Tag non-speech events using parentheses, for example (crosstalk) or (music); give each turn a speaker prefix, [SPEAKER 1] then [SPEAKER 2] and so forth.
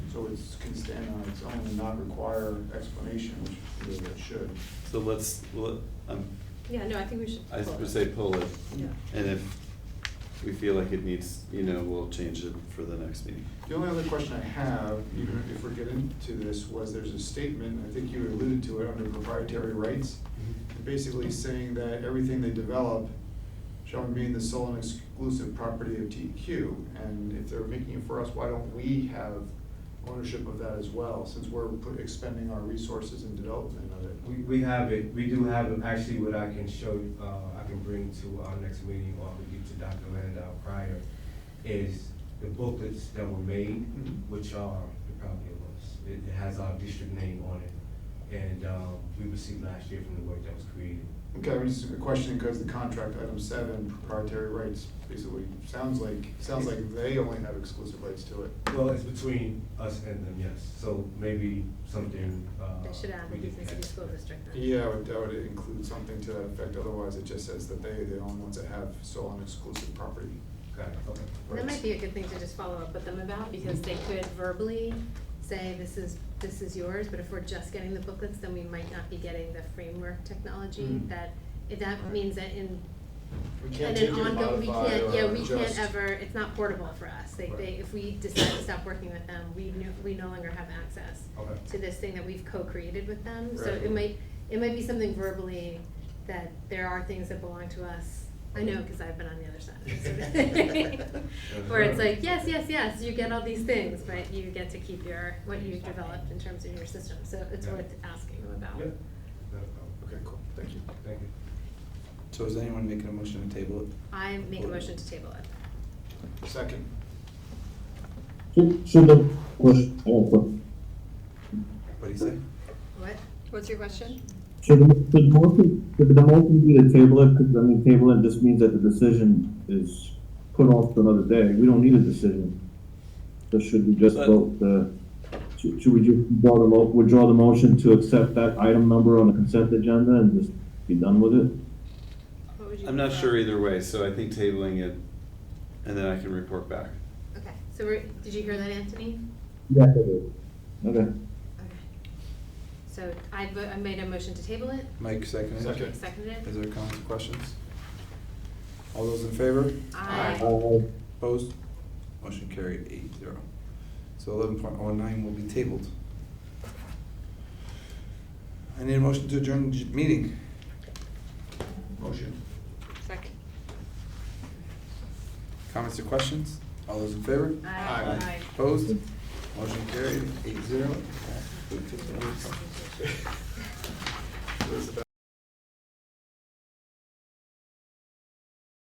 [SPEAKER 1] So it's, can stand on its own and not require explanation, which it should.
[SPEAKER 2] So let's, let- um,
[SPEAKER 3] Yeah, no, I think we should.
[SPEAKER 2] I
[SPEAKER 3] pull
[SPEAKER 2] would
[SPEAKER 3] it.
[SPEAKER 2] say pull it,
[SPEAKER 3] Yeah.
[SPEAKER 2] and if we feel like it needs, you know, we'll change it for the next meeting.
[SPEAKER 1] The only other question I have, even if we're getting to this, was there's a statement, I think you alluded to it, under proprietary rights, basically saying that everything they develop shall remain the sole and exclusive property of TQ. And if they're making it for us, why don't we have ownership of that as well, since we're put- expending our resources in development of it?
[SPEAKER 4] We, we have it, we do have it, actually what I can show, you, uh, I can bring to our next meeting or we give to Dr. Landau prior is the booklets that were made,
[SPEAKER 1] Mhm.
[SPEAKER 4] which are, it probably was, it it has our district name on it. And, um, we received last year from the work that was created.
[SPEAKER 1] Okay, I'm just questioning because the contract, item seven, proprietary rights, basically, sounds like, sounds like they only have exclusive rights to it.
[SPEAKER 4] Well, it's between us and them, yes, so maybe something, uh.
[SPEAKER 3] They should add the
[SPEAKER 4] we
[SPEAKER 3] Houston
[SPEAKER 4] didn't
[SPEAKER 3] City
[SPEAKER 4] catch.
[SPEAKER 3] School District. then.
[SPEAKER 1] Yeah, I would doubt it includes something to that effect, otherwise it just says that they, they're the only ones that have sole and exclusive property.
[SPEAKER 4] Got it, okay.
[SPEAKER 3] That might be a good thing to just follow up with them about, because they could verbally say, this is, this is yours, but if we're just getting the booklets, then we might not be getting the framework technology
[SPEAKER 1] Mm.
[SPEAKER 3] that, if that means that in,
[SPEAKER 1] We can't
[SPEAKER 3] and
[SPEAKER 1] take it,
[SPEAKER 3] an ongoing, we
[SPEAKER 1] modify,
[SPEAKER 3] can't, yeah,
[SPEAKER 1] or
[SPEAKER 3] we can't
[SPEAKER 1] adjust.
[SPEAKER 3] ever, it's not portable for us. They,
[SPEAKER 1] Right.
[SPEAKER 3] they, if we decide to stop working with them, we no, we no longer have access
[SPEAKER 4] Okay.
[SPEAKER 3] to this thing that we've co-created with them. So
[SPEAKER 1] Right.
[SPEAKER 3] it might, it might be something verbally that there are things that belong to us. I know, because I've been on the other side.
[SPEAKER 1] (laughs)
[SPEAKER 3] of it. (laughs) Where it's like, yes, yes, yes, you get all these things, but you get to keep your, what you've developed in terms of your system. So it's
[SPEAKER 4] Yeah.
[SPEAKER 3] worth asking them
[SPEAKER 4] Yeah,
[SPEAKER 3] about.
[SPEAKER 4] not a problem.
[SPEAKER 1] Okay, cool, thank you.
[SPEAKER 4] Thank you.
[SPEAKER 5] So is anyone making a motion to table it?
[SPEAKER 3] I make a motion to table it.
[SPEAKER 1] Second,
[SPEAKER 6] Should, should the question, I have a question.
[SPEAKER 5] What'd he say?
[SPEAKER 3] What?
[SPEAKER 7] What's your question?
[SPEAKER 6] Should, the- should motion, should the motion be to table it, because I mean, table it just means that the decision is put off to another day, we don't need a decision. So should we just
[SPEAKER 2] But-
[SPEAKER 6] vote the, should, should we just withdraw the, mo- withdraw the motion to accept that item number on the consent agenda and just be done with it?
[SPEAKER 3] What would you
[SPEAKER 2] I'm not
[SPEAKER 3] prefer?
[SPEAKER 2] sure either way, so I think tabling it, and then I can report back.
[SPEAKER 3] Okay, so we're, did you hear that, Anthony?
[SPEAKER 6] Yes, I did. Okay.
[SPEAKER 3] Okay. So I, vo- I made a motion to table it.
[SPEAKER 5] Mike seconded?
[SPEAKER 1] Second.
[SPEAKER 3] Nick Seconded
[SPEAKER 5] Is
[SPEAKER 3] it.
[SPEAKER 5] there comments or questions? All those in favor?
[SPEAKER 3] Aye.
[SPEAKER 6] Uh,
[SPEAKER 5] Opposed? Motion carried eight zero. So eleven point oh nine will be tabled. I need a motion to adjourn the j- meeting.
[SPEAKER 1] motion.
[SPEAKER 7] Second.
[SPEAKER 5] Comments or questions? All those in favor?
[SPEAKER 1] Aye.
[SPEAKER 3] Aye.
[SPEAKER 5] Opposed? Motion carried eight zero.